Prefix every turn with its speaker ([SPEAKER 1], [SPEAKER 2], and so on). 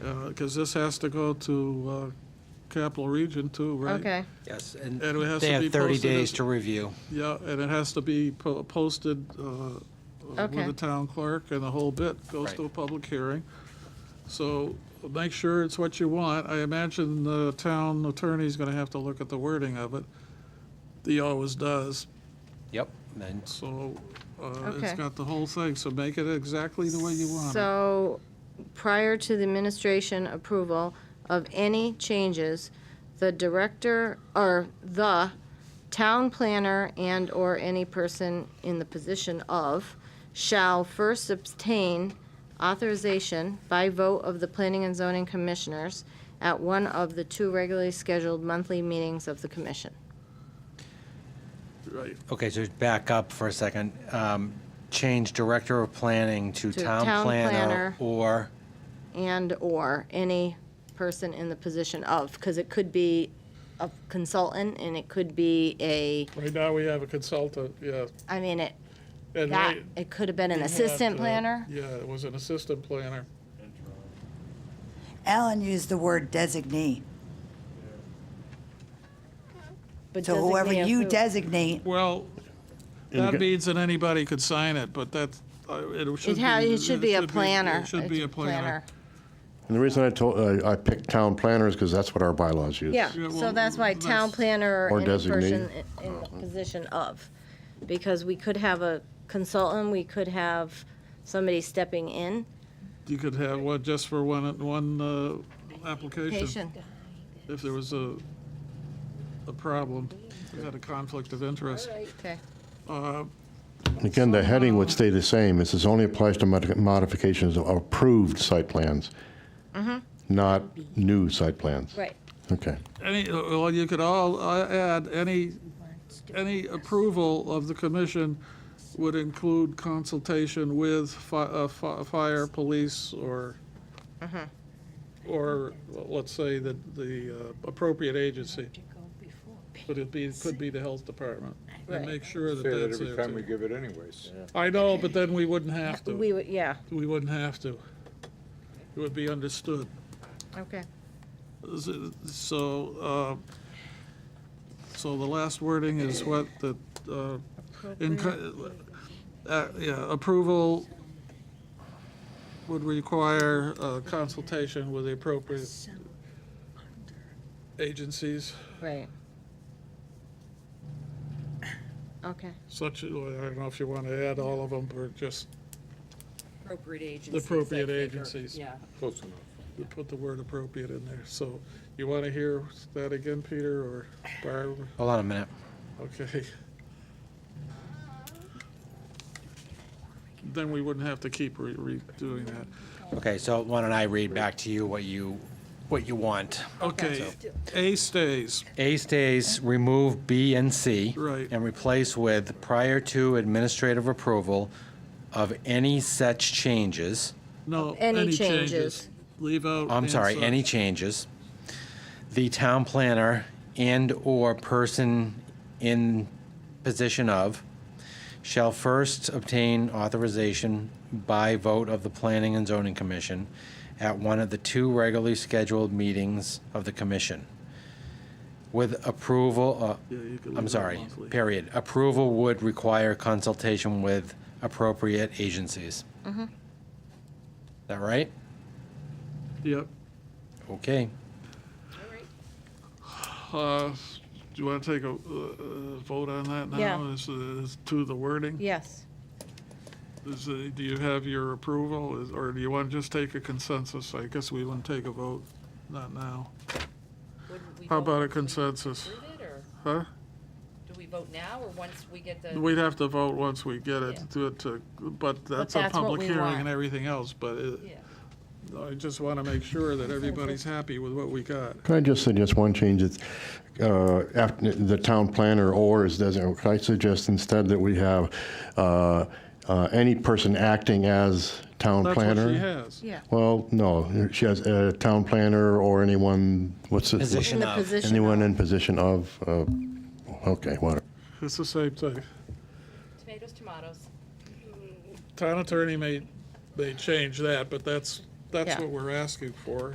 [SPEAKER 1] because Uh, this has to go to uh, Capital Region too, right?
[SPEAKER 2] Okay,
[SPEAKER 3] Yes, and
[SPEAKER 1] And it has
[SPEAKER 3] they
[SPEAKER 1] to be
[SPEAKER 3] have 30
[SPEAKER 1] posted
[SPEAKER 3] days
[SPEAKER 1] as-
[SPEAKER 3] to review.
[SPEAKER 1] Yeah, and it has to be po- posted uh, with
[SPEAKER 2] Okay.
[SPEAKER 1] the town clerk, and the whole bit goes
[SPEAKER 3] Right.
[SPEAKER 1] to a public hearing. So make sure it's what you want. I imagine the town attorney's going to have to look at the wording of it. He always does,
[SPEAKER 3] Yep. And
[SPEAKER 1] so uh, it's
[SPEAKER 2] Okay.
[SPEAKER 1] got the whole thing, so make it exactly the way you want it.
[SPEAKER 2] so prior to the administration approval of any changes, the director, or the town planner and/or any person in the position of shall first obtain authorization by vote of the planning and zoning commissioners at one of the two regularly scheduled monthly meetings of the commission.
[SPEAKER 1] Right,
[SPEAKER 3] Okay, so back up for a second. Um, Change Director of Planning to
[SPEAKER 2] To
[SPEAKER 3] Town
[SPEAKER 2] Town
[SPEAKER 3] Planner
[SPEAKER 2] Planner.
[SPEAKER 3] or,
[SPEAKER 2] and/or any person in the position of, because it could be a consultant, and it could be a,
[SPEAKER 1] right now we have a consultant, yeah.
[SPEAKER 2] I mean, it,
[SPEAKER 1] and
[SPEAKER 2] that,
[SPEAKER 1] right-
[SPEAKER 2] it could have been an
[SPEAKER 1] we had,
[SPEAKER 2] assistant
[SPEAKER 1] uh,
[SPEAKER 2] planner.
[SPEAKER 1] Yeah, it was an assistant planner.
[SPEAKER 4] Alan used the word designee.
[SPEAKER 2] but
[SPEAKER 4] So whoever
[SPEAKER 2] designate
[SPEAKER 4] you
[SPEAKER 2] who-
[SPEAKER 4] designate,
[SPEAKER 1] Well, that means that anybody could sign it, but that's, uh, it should
[SPEAKER 2] It
[SPEAKER 1] be.
[SPEAKER 2] ha- it should be a planner.
[SPEAKER 1] It should be a planner.
[SPEAKER 5] And the reason I told, uh, I picked town planners because that's what our bylaws use.
[SPEAKER 2] Yeah,
[SPEAKER 1] Yeah,
[SPEAKER 2] so
[SPEAKER 1] well,
[SPEAKER 2] that's why town
[SPEAKER 1] that's-
[SPEAKER 2] planner or
[SPEAKER 5] Or
[SPEAKER 2] any person
[SPEAKER 5] designate.
[SPEAKER 2] i- in the position of, because we could have a consultant, we could have somebody stepping in.
[SPEAKER 1] You could have one just for one, one uh, application,
[SPEAKER 2] Patient.
[SPEAKER 1] if there was a, a problem, if you had a conflict of interest.
[SPEAKER 2] Okay,
[SPEAKER 1] Uh,
[SPEAKER 5] Again, the heading would stay the same. It says only applies to modi- modifications of approved site plans,
[SPEAKER 2] Mm-hmm.
[SPEAKER 5] not new site plans.
[SPEAKER 2] right.
[SPEAKER 5] Okay.
[SPEAKER 1] Any, well, you could all uh, add, any, any approval of the commission would include consultation with fi- uh, fi- fire, police, or, or, well, let's say, the, the uh, appropriate agency. But it be, could be the health department. And
[SPEAKER 2] Right.
[SPEAKER 1] make sure that
[SPEAKER 6] Say that
[SPEAKER 1] that's
[SPEAKER 6] every
[SPEAKER 1] there,
[SPEAKER 6] time we
[SPEAKER 1] too.
[SPEAKER 6] give it anyways.
[SPEAKER 1] I know, but then we wouldn't have to.
[SPEAKER 2] We, would- yeah,
[SPEAKER 1] We wouldn't have to. It would be understood.
[SPEAKER 2] okay.
[SPEAKER 1] So, uh, so the last wording is what, that, uh, in, uh, yeah, approval would require uh, consultation with the appropriate agencies,
[SPEAKER 2] Right. Okay,
[SPEAKER 1] such, I don't know if you want to add all of them, or just
[SPEAKER 7] Appropriate agencies.
[SPEAKER 1] The appropriate
[SPEAKER 7] I think, or-
[SPEAKER 1] agencies.
[SPEAKER 7] Yeah.
[SPEAKER 6] Close enough.
[SPEAKER 1] put the word appropriate in there. So you want to hear that again, Peter, or Barb?
[SPEAKER 3] hold on a minute.
[SPEAKER 1] Okay. Then we wouldn't have to keep re- redoing that.
[SPEAKER 3] Okay, so why don't I read back to you what you, what you want?
[SPEAKER 1] Okay, A stays,
[SPEAKER 3] A stays, remove B and C.
[SPEAKER 1] Right.
[SPEAKER 3] And replace with prior to administrative approval of any such changes.
[SPEAKER 1] no,
[SPEAKER 2] Oh, Any
[SPEAKER 1] any changes.
[SPEAKER 2] changes.
[SPEAKER 1] Leave out.
[SPEAKER 3] I'm
[SPEAKER 1] and
[SPEAKER 3] sorry,
[SPEAKER 1] such.
[SPEAKER 3] any changes, the town planner and/or person in position of shall first obtain authorization by vote of the Planning and Zoning Commission at one of the two regularly scheduled meetings of the commission. With approval, uh,
[SPEAKER 1] Yeah, you could leave
[SPEAKER 3] I'm
[SPEAKER 1] out
[SPEAKER 3] sorry,
[SPEAKER 1] monthly.
[SPEAKER 3] period. Approval would require consultation with appropriate agencies. Is that right?
[SPEAKER 1] Yep.
[SPEAKER 3] Okay.
[SPEAKER 1] Uh, Do you want to take a uh, uh, vote on that now?
[SPEAKER 2] Yeah.
[SPEAKER 1] Is, is to the wording?
[SPEAKER 2] yes.
[SPEAKER 1] Is, uh, do you have your approval, Is- or do you want to just take a consensus? I guess we wouldn't take a vote, not now.
[SPEAKER 7] Wouldn't we
[SPEAKER 1] How
[SPEAKER 7] vote
[SPEAKER 1] about a
[SPEAKER 7] once we
[SPEAKER 1] consensus?
[SPEAKER 7] approve it, or
[SPEAKER 1] Huh?
[SPEAKER 7] Do we vote now, or once we get the?
[SPEAKER 1] We'd have to vote once we get it,
[SPEAKER 7] Yeah.
[SPEAKER 1] to, to, but that's a
[SPEAKER 2] that's what
[SPEAKER 1] public
[SPEAKER 2] we
[SPEAKER 1] hearing
[SPEAKER 2] want.
[SPEAKER 1] and everything else, but it-
[SPEAKER 7] Yeah.
[SPEAKER 1] I just want to make sure that everybody's happy with what we got.
[SPEAKER 5] Can I just suggest one change? It's, uh, after the town planner or is designated. Can I suggest instead that we have, uh, uh, any person acting as town
[SPEAKER 1] That's what
[SPEAKER 5] planner?
[SPEAKER 1] she has.
[SPEAKER 2] Yeah.
[SPEAKER 5] Well, no, she has a town planner or anyone, what's it?
[SPEAKER 3] Position.
[SPEAKER 2] In the
[SPEAKER 3] of.
[SPEAKER 2] position.
[SPEAKER 5] uh, Anyone
[SPEAKER 2] of-
[SPEAKER 5] in position of, uh, okay, whatever.
[SPEAKER 1] It's the same thing.
[SPEAKER 7] Tomatoes, tomatoes.
[SPEAKER 1] Town attorney may, may change that, but that's, that's
[SPEAKER 2] Yeah.
[SPEAKER 1] what we're asking for.